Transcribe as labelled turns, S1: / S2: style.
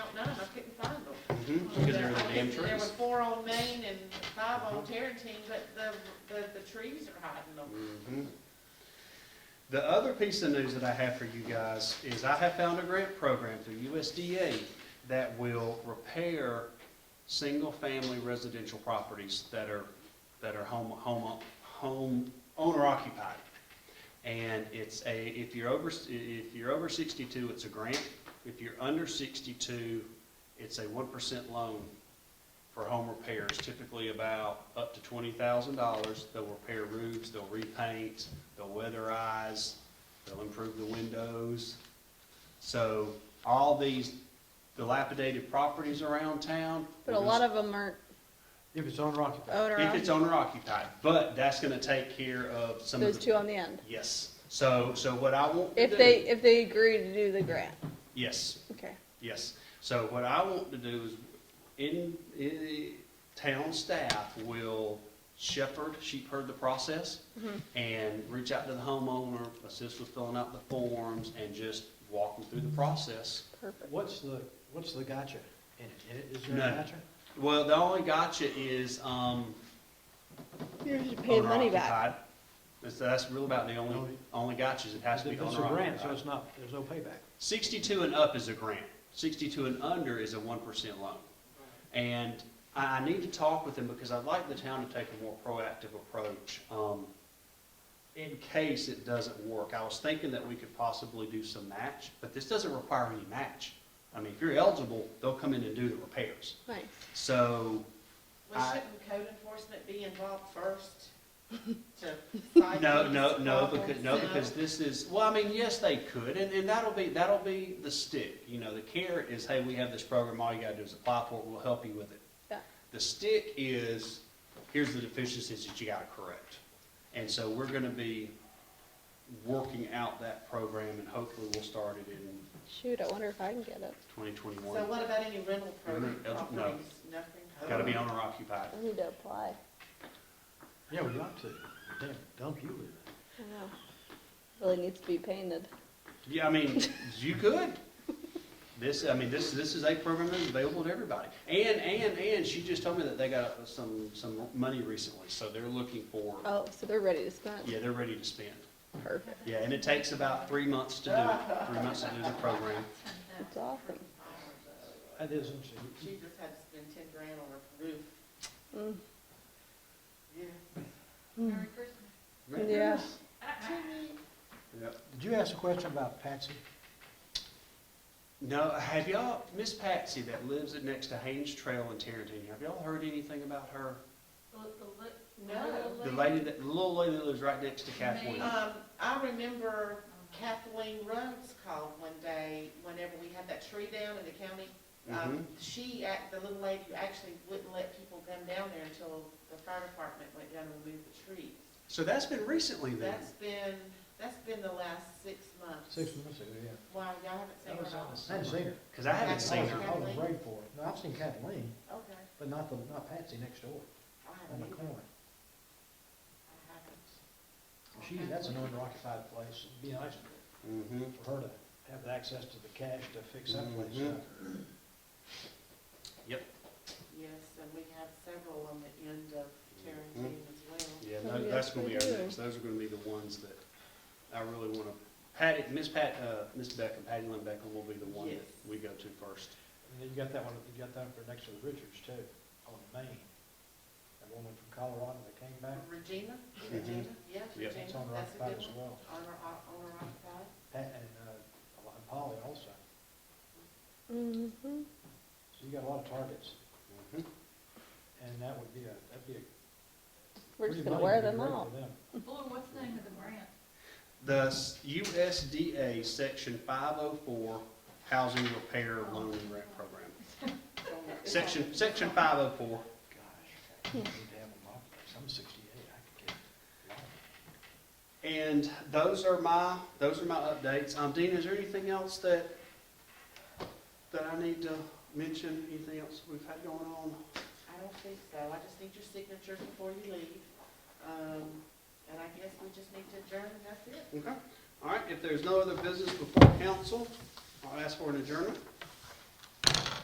S1: Because they're the damn
S2: There were
S1: trees.
S2: four on Main and five on Tarrentine, but the, the, the trees are hiding them.
S1: Mhm. The other piece of news that I have for you guys is I have found a grant program through USDA that will repair single-family residential properties that are, that are home, home, home owner occupied. And it's a, if you're over, if you're over sixty-two, it's a grant. If you're under sixty-two, it's a one percent loan for home repairs, typically about up to twenty thousand dollars. They'll repair roofs, they'll repaint, they'll weatherize, they'll improve the windows. So all these dilapidated properties around town.
S3: But a lot of them are
S4: If it's owner occupied,
S3: owner,
S1: If it's owner occupied, but that's gonna take care of some
S3: those
S1: of the.
S3: two on the end.
S1: Yes, so, so what I want to do.
S3: If they, if they agree to do the grant,
S1: Yes,
S3: okay.
S1: yes. So what I want to do is, in, i town staff will shepherd, sheep herd the process
S3: Mhm.
S1: and reach out to the homeowner, assist with filling out the forms and just walk them through the process.
S3: Perfect.
S4: what's the, what's the gotcha in it? Is there a
S1: None.
S4: gotcha?
S1: Well, the only gotcha is, um,
S3: You're just paying
S1: owner
S3: money back.
S1: occupied. That's, that's really about the only, only gotchas. It has to be
S4: It's
S1: owner
S4: Oh, a grant, so
S1: occupied.
S4: it's not, there's no payback.
S1: Sixty-two and up is a grant. Sixty-two and under is a one percent loan. And I, I need to talk with them because I'd like the town to take a more proactive approach, um, in case it doesn't work. I was thinking that we could possibly do some match, but this doesn't require any match. I mean, if you're eligible, they'll come in and do the repairs.
S3: Nice.
S1: So,
S2: Well,
S1: I-
S2: shouldn't code enforcement be involved first to fight
S1: no,
S2: these
S1: no, no,
S2: problems?
S1: because, no, because this is, well, I mean, yes, they could, and, and that'll be, that'll be the stick. You know, the carrot is, hey, we have this program, all you gotta do is apply for it, we'll help you with it.
S3: Yeah.
S1: The stick is, here's the deficiencies that you gotta correct. And so we're gonna be working out that program, and hopefully we'll start it in
S3: Shoot, I wonder if I can get it.
S1: twenty twenty-one.
S2: So what about any rental pro-
S1: Mm, no.
S2: properties? Nothing?
S1: Gotta be owner occupied.
S3: I need to apply.
S4: Yeah, we ought to, damn, dump you with it.
S3: I know. Really needs to be painted.
S1: Yeah, I mean, you could. This, I mean, this, this is a program that's available to everybody. And, and, and she just told me that they got some, some money recently, so they're looking for,
S3: Oh, so they're ready to spend.
S1: yeah, they're ready to spend.
S3: Perfect.
S1: Yeah, and it takes about three months to do it, three months to do the program.
S3: That's awesome.
S4: That is interesting.
S2: She just had to spend ten grand on her roof.
S3: Mm.
S2: Yeah.
S3: Mm.
S5: Christmas.
S3: Yeah.
S1: Yep.
S4: Did you ask a question about Patsy?
S1: No, have y'all, Miss Patsy that lives at- next to Haynes Trail in Tarrentine, have y'all heard anything about her?
S5: The, the li- the
S2: No.
S5: little
S1: The
S5: lady.
S1: lady that, the little lady that lives right next to Kathleen.
S2: Um, I remember Kathleen Rhodes called one day, whenever we had that tree down in the county.
S1: Mm-hmm.
S2: Um, she, act- the little lady who actually wouldn't let people come down there until the fire department went down and moved the trees.
S1: So that's been recently then?
S2: That's been, that's been the last six months.
S4: Six months ago, yeah.
S2: Wow, y'all haven't seen
S1: That was
S2: her at all?
S1: on
S4: I hadn't seen her.
S1: Because I haven't seen her.
S4: I was afraid for her. No, I've seen Kathleen,
S2: Okay,
S4: but not the, not Patsy next door,
S2: I
S4: on
S2: haven't
S4: the
S2: either.
S4: corner.
S2: I haven't.
S4: She,
S2: Okay.
S4: that's an owner occupied place. It'd be nice
S1: Mm-hmm.
S4: for her to have the access to the cash to fix that place
S1: Mhm.
S4: up.
S2: Yes, and we have several on the end of Tarrentine as well.
S1: Yeah,
S3: Oh,
S1: tho-
S3: yes,
S1: that's gonna
S3: we
S1: be our
S3: do.
S1: next, those are gonna be the ones that I really wanna, Patty, Miss Pat, uh, Miss Beckham, Patty Lynn Beckham will be the one that
S2: Yes.
S1: we go to first.
S4: And then you got that one, you got that one for next to the Richards too, on Maine. That woman from Colorado that came back,
S2: Regina,
S1: Mhm.
S2: Regina, yes,
S1: Yep.
S2: Regina,
S4: that's on
S2: that's
S4: Rock
S2: a
S4: Pike
S2: good
S4: as
S2: one.
S4: well.
S2: Honor, honor occupied.
S4: Pat and, uh, and Polly also.
S3: Mhm.
S4: So you got a lot of targets,
S1: Mhm.
S4: and that would be a, that'd be a.
S3: We're
S4: pretty
S3: just gonna
S4: money
S3: wear
S4: would be
S3: them
S4: great for
S3: out.
S4: them.
S5: Boy, what's the name of the grant?
S1: The s- USDA Section five oh four Housing Repair Loan and Grant Program. Section, section five oh four.
S4: Gosh, I need to have them occupied. I'm sixty-eight, I could get.
S1: And those are my, those are my updates. Um, Dean, is there anything else that, that I need to mention? Anything else we've had going on?
S2: I don't think so, I just need your signatures before you leave. Um, and I guess we just need to adjourn, and that's it.
S1: Okay, all right, if there's no other business before council, I'll ask for an adjournment.